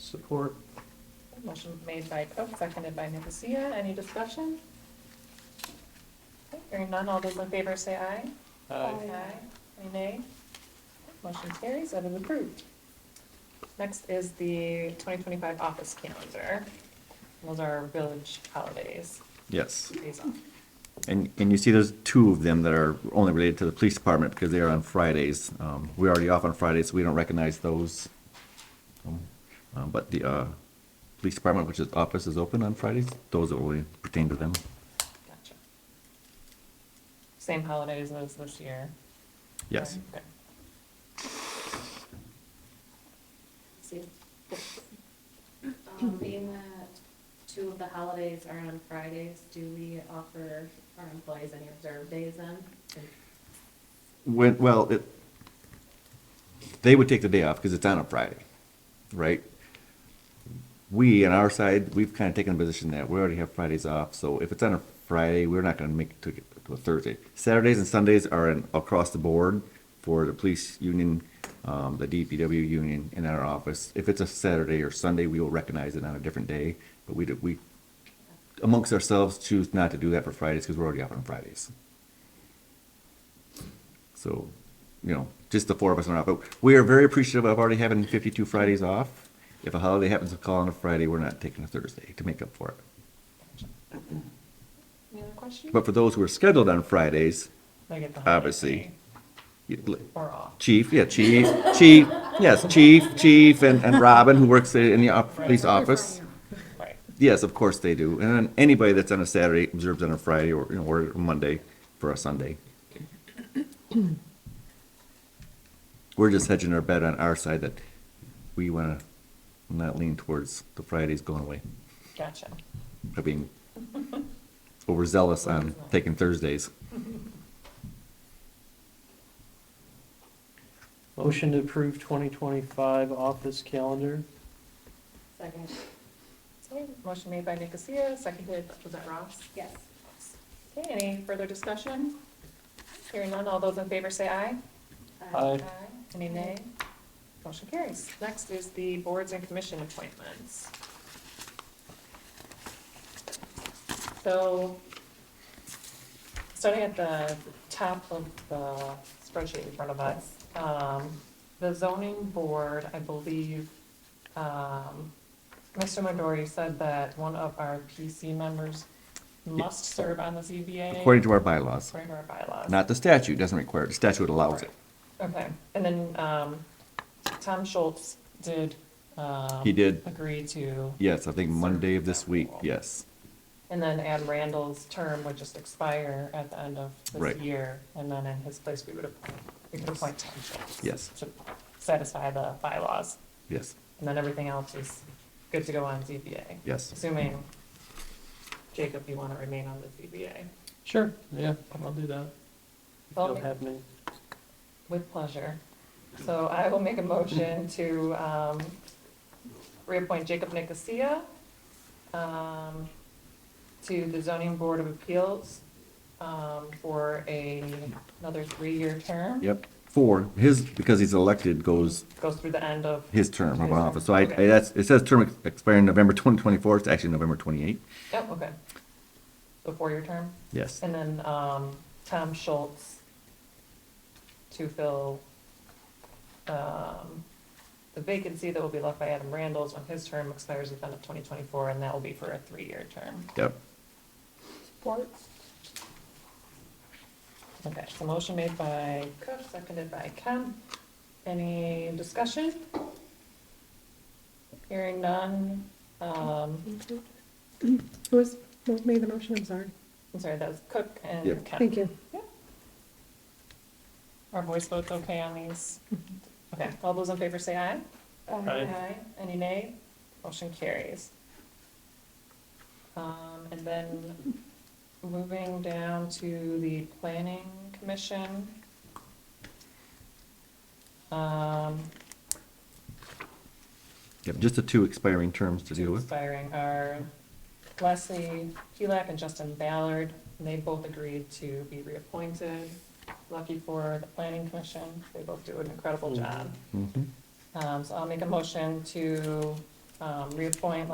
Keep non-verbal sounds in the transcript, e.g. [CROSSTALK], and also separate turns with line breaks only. Support.
Motion made by Cook, seconded by Nicosia. Any discussion? Okay, Hearing none, all those in favor say aye.
Aye.
Any nay? Motion carries, that is approved. Next is the 2025 office calendar. Those are our village holidays,
Yes,
days off.
and, and you see there's two of them that are only related to the police department because they are on Fridays. Um, we're already off on Fridays, so we don't recognize those. Um, um, But the, uh, police department, which is office is open on Fridays, those only pertain to them.
Gotcha. Same holidays as this year.
Yes.
Okay.
See, um, being that two of the holidays are on Fridays, do we offer our employees any observed days then?
When, well, it, they would take the day off because it's on a Friday, right? We, on our side, we've kind of taken the position that we already have Fridays off, so if it's on a Friday, we're not gonna make it to, to a Thursday. Saturdays and Sundays are in, across the board for the police union, um, the DPW union, and our office. If it's a Saturday or Sunday, we will recognize it on a different day, but we, do- we, amongst ourselves, choose not to do that for Fridays because we're already off on Fridays. So, you know, just the four of us are off. But we are very appreciative of already having 52 Fridays off. If a holiday happens to call on a Friday, we're not taking a Thursday to make up for it.
Any other questions?
But for those who are scheduled on Fridays,
They get the holiday
obviously, you-
pay Or off.
Chief, yeah, Chief, Chief, yes, Chief, Chief, and, and Robin, who works in the op- police office.
Right.
Yes, of course they do. And then anybody that's on a Saturday observes on a Friday or, you know, or Monday for a [COUGHS] Sunday. We're just hedging our bet on our side that we want to not lean towards the Fridays going away.
Gotcha.
I mean, [LAUGHS] overzealous on taking Thursdays.
Motion to approve twenty twenty-five office calendar.
Second,
Okay, Motion made by Nicosia, seconded, was that Ross?
yes.
Okay, any further discussion? Hearing none, all those in favor say aye.
Uh,
Aye.
Any nay? Motion carries. Next is the boards and commission appointments. So, starting at the top of the spreadsheet in front of us, um, the zoning board, I believe, um, Mr. Midori said that one of our PC members must serve on the ZBA.
According to our bylaws,
according to our bylaws.
not the statute, doesn't require it. The statute allows it.
Okay, and then, um, Tom Schultz did, um.
He did.
Agree to,
Yes, I think Monday of this week, yes.
and then add Randall's term would just expire at the end of this
Right.
year, and then in his place, we would appoint, we could appoint Tom Schultz.
Yes.
To satisfy the bylaws,
Yes,
and then everything else is good to go on ZBA.
yes.
Assuming, Jacob, you wanna remain on the ZBA.
Sure, yeah, I'll do that. If you'll
Okay.
have me.
With pleasure. So I will make a
[LAUGHS]
motion to um, reappoint Jacob Nicosia um, to the Zoning Board of Appeals um, for a, another three-year term.
Yep. Four, his, because he's elected, goes
Goes through the end of,
his term of
His term,
office. So I, I,
okay.
that's, it says term expiring November twenty twenty-four, it's actually November twenty-eight.
oh, okay. The four-year term.
Yes,
And then um, Tom Schultz to fill um, the vacancy that will be left by Adam Randles when his term expires at the end of 2024, and that will be for a three-year term.
yep.
Okay, so motion made by Cook, seconded by Kemp. Any discussion? Hearing none. Um,
Who was, who made the motion, I'm sorry?
I'm sorry, that was Cook and
Yep.
Kemp.
Thank you.
Our voice votes okay on these? Okay, all those in favor say aye.
Aye.
Any nay? Motion carries. Um, and then moving down to the planning commission. Um,
Yep, just the two expiring terms to deal
two
with.
expiring are Leslie Helak and Justin Ballard. and They both agreed to be reappointed. Lucky for the planning
Mm-hmm.
commission, they both do an incredible job.
Mhm.
Um, so I'll make a motion to um, reappoint